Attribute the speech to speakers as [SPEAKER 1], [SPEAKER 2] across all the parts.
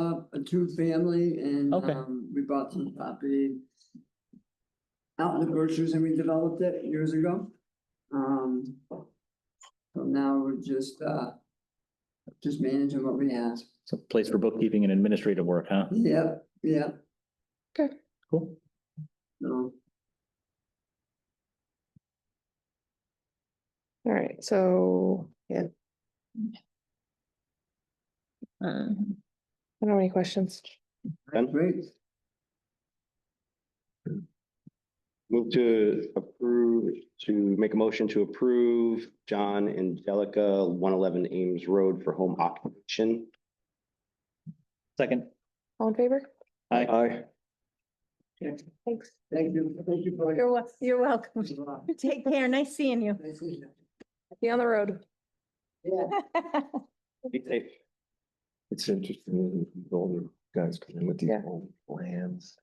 [SPEAKER 1] a two family and,
[SPEAKER 2] Okay.
[SPEAKER 1] um, we bought some property. Out in the Berkshires and we developed it years ago. Um. So now we're just, uh, just managing what we have.
[SPEAKER 2] It's a place for bookkeeping and administrative work, huh?
[SPEAKER 1] Yep, yep,
[SPEAKER 2] Cool.
[SPEAKER 1] no,
[SPEAKER 3] All right, so, yeah. Um, I don't have any questions.
[SPEAKER 4] Done.
[SPEAKER 1] great.
[SPEAKER 4] Move to approve, to make a motion to approve John Angelica, one eleven Ames Road for home occupation.
[SPEAKER 2] Second.
[SPEAKER 3] All in favor?
[SPEAKER 2] Aye.
[SPEAKER 4] Aye.
[SPEAKER 3] Thanks.
[SPEAKER 1] Thank you, thank you for your.
[SPEAKER 5] You're, wel- you're welcome. Take care. Nice seeing you.
[SPEAKER 1] Nice to meet you.
[SPEAKER 3] Be on the road.
[SPEAKER 1] Yeah.
[SPEAKER 4] Be safe.
[SPEAKER 6] It's interesting, when all the guys come in with these
[SPEAKER 3] Yeah.
[SPEAKER 6] old plans.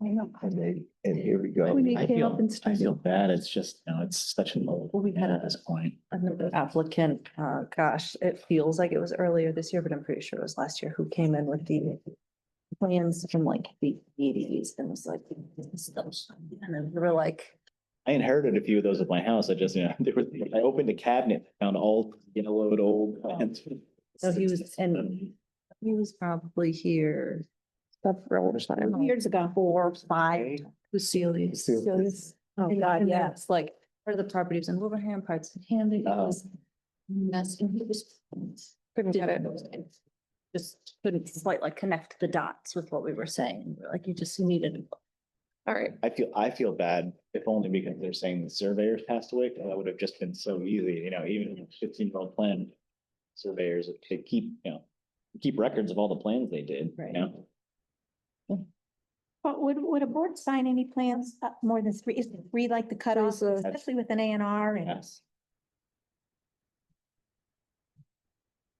[SPEAKER 6] And they, and here we go.
[SPEAKER 7] When
[SPEAKER 2] I
[SPEAKER 7] he came
[SPEAKER 2] feel-
[SPEAKER 7] up and
[SPEAKER 2] I feel
[SPEAKER 7] started,
[SPEAKER 2] bad. It's just, you know, it's such an old,
[SPEAKER 7] Well, we had
[SPEAKER 2] at
[SPEAKER 7] a-
[SPEAKER 2] this point.
[SPEAKER 7] another applicant, uh, gosh, it feels like it was earlier this year, but I'm pretty sure it was last year, who came in with the plans from like the eighties and was like, this is the- and then we were like,
[SPEAKER 2] I inherited a few of those at my house. I just, you know, there was, I opened a cabinet, found all yellowed old. plans.
[SPEAKER 7] so he was, and he was probably here
[SPEAKER 3] That's real time.
[SPEAKER 5] Years ago.
[SPEAKER 7] four, five, Lucille's.
[SPEAKER 3] Cecilia's.
[SPEAKER 7] Oh,
[SPEAKER 5] And-
[SPEAKER 7] God,
[SPEAKER 5] and
[SPEAKER 7] yeah,
[SPEAKER 5] that-
[SPEAKER 7] it's like, part of the property was in Wilbraham, parts in Hamden, it
[SPEAKER 2] Oh.
[SPEAKER 7] was. Mess, and he was.
[SPEAKER 3] Couldn't get it.
[SPEAKER 7] didn't- Just couldn't quite like connect the dots with what we were saying, We're like you just needed.
[SPEAKER 3] All right,
[SPEAKER 2] I feel, I feel bad, if only because they're saying the surveyors passed away, 'cause that would have just been so easy, you know, even if fifteen year old plan. Surveyors, if they keep, you know, keep records of all the plans they did, you
[SPEAKER 7] Right.
[SPEAKER 2] know?
[SPEAKER 5] But would, would a board sign any plans up more than three, is three like the cutoff,
[SPEAKER 3] There's a-
[SPEAKER 5] especially with an A and R and?
[SPEAKER 2] Yes.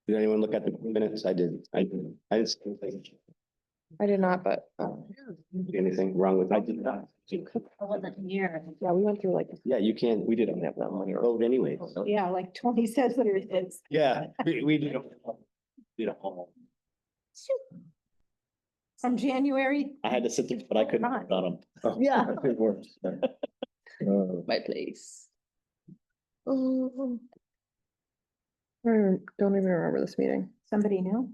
[SPEAKER 4] Did anyone look at the minutes? I did. I did. I didn't see anything,
[SPEAKER 3] I did not, but, uh,
[SPEAKER 4] see anything wrong with, I did not.
[SPEAKER 7] I wasn't here.
[SPEAKER 3] yeah, we went through like,
[SPEAKER 4] Yeah, you can't, we didn't have that money road anyway.
[SPEAKER 5] Yeah, like Tony says there it is.
[SPEAKER 4] Yeah, we, we did. a- Did a whole.
[SPEAKER 5] From January.
[SPEAKER 2] I had to sit there, but I couldn't,
[SPEAKER 5] Right.
[SPEAKER 2] vote on them.
[SPEAKER 7] Yeah.
[SPEAKER 6] It works. Uh,
[SPEAKER 7] My place.
[SPEAKER 3] oh. I don't even remember this meeting.
[SPEAKER 5] Somebody knew?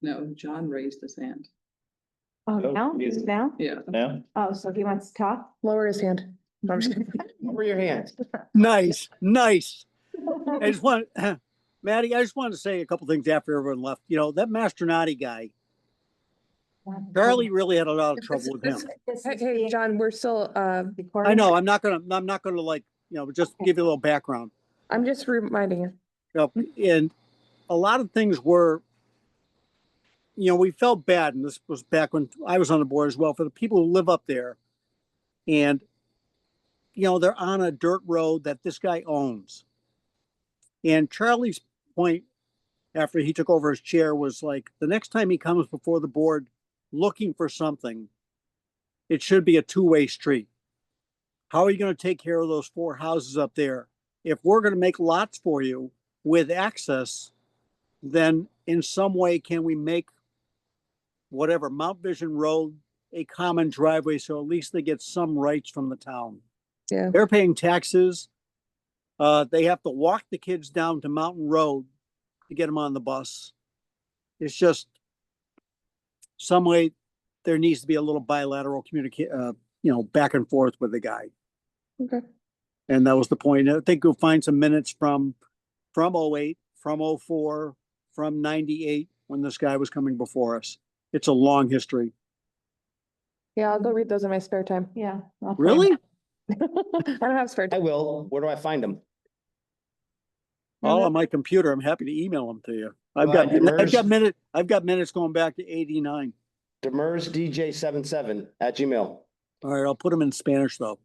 [SPEAKER 8] No, John raised his hand.
[SPEAKER 5] Oh,
[SPEAKER 2] No,
[SPEAKER 5] now,
[SPEAKER 2] he isn't.
[SPEAKER 5] now?
[SPEAKER 8] Yeah.
[SPEAKER 2] no?
[SPEAKER 5] Oh, so he wants to talk?
[SPEAKER 3] Lower his hand. No, I'm just kidding.
[SPEAKER 4] Over your hands.
[SPEAKER 9] Nice, nice. I just want, Maddie, I just want to say a couple things after everyone left. You know, that Masternati guy, Charlie really had a lot of trouble with him.
[SPEAKER 5] This
[SPEAKER 3] Hey,
[SPEAKER 5] is
[SPEAKER 3] hey,
[SPEAKER 5] the-
[SPEAKER 3] John, we're still, uh,
[SPEAKER 5] the
[SPEAKER 9] I know,
[SPEAKER 5] quarter-
[SPEAKER 9] I'm not gonna, I'm not gonna like, you know, just give you a little background.
[SPEAKER 3] I'm just reminding you.
[SPEAKER 9] Yep, and a lot of things were, you know, we felt bad, and this was back when I was on the board as well, for the people who live up there. And, you know, they're on a dirt road that this guy owns. And Charlie's point after he took over his chair was like, the next time he comes before the board looking for something, it should be a two-way street. How are you gonna take care of those four houses up there? If we're gonna make lots for you, with access, then in some way can we make whatever Mount Vision Road a common driveway so at least they get some rights from the town?
[SPEAKER 3] Yeah.
[SPEAKER 9] They're paying taxes. Uh, they have to walk the kids down to Mountain Road to get them on the bus. It's just some way there needs to be a little bilateral communica- uh, you know, back and forth with the guy.
[SPEAKER 3] Okay.
[SPEAKER 9] And that was the point. I think you'll find some minutes from, from oh eight, from oh four, from ninety-eight, when this guy was coming before us. It's a long history.
[SPEAKER 3] Yeah, I'll go read those in my spare time.
[SPEAKER 5] Yeah. I'll find
[SPEAKER 9] Really?
[SPEAKER 3] I don't have spare
[SPEAKER 4] I
[SPEAKER 3] time.
[SPEAKER 4] will. Where do I find them?
[SPEAKER 9] All on my computer. I'm happy to email them to you. I've
[SPEAKER 4] Well,
[SPEAKER 9] got, I've
[SPEAKER 4] immersed-
[SPEAKER 9] got minute, I've got minutes going back to eighty-nine.
[SPEAKER 4] Demers DJ seven seven at Gmail.
[SPEAKER 9] All right, I'll put them in Spanish though.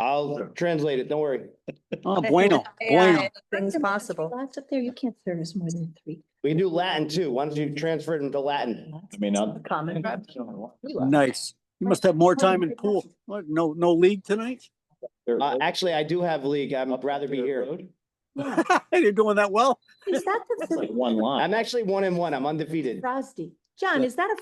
[SPEAKER 4] I'll translate it. Don't worry.
[SPEAKER 9] Oh, bueno, bueno.
[SPEAKER 7] Things possible.
[SPEAKER 5] Lots
[SPEAKER 7] up there, you can't service more than three.
[SPEAKER 4] We can do Latin too. Why don't you transfer it into Latin?
[SPEAKER 2] I mean, I'll.
[SPEAKER 7] Common.
[SPEAKER 9] Nice. You must have more time in pool. What, no, no league tonight?
[SPEAKER 4] Uh, actually, I do have league. I'd rather be here.
[SPEAKER 9] You're doing that well.
[SPEAKER 5] Is that
[SPEAKER 2] It's
[SPEAKER 5] the
[SPEAKER 2] like one line.
[SPEAKER 4] I'm actually one and one. I'm undefeted.
[SPEAKER 5] Rosdi? John,
[SPEAKER 4] Yeah.
[SPEAKER 5] is that a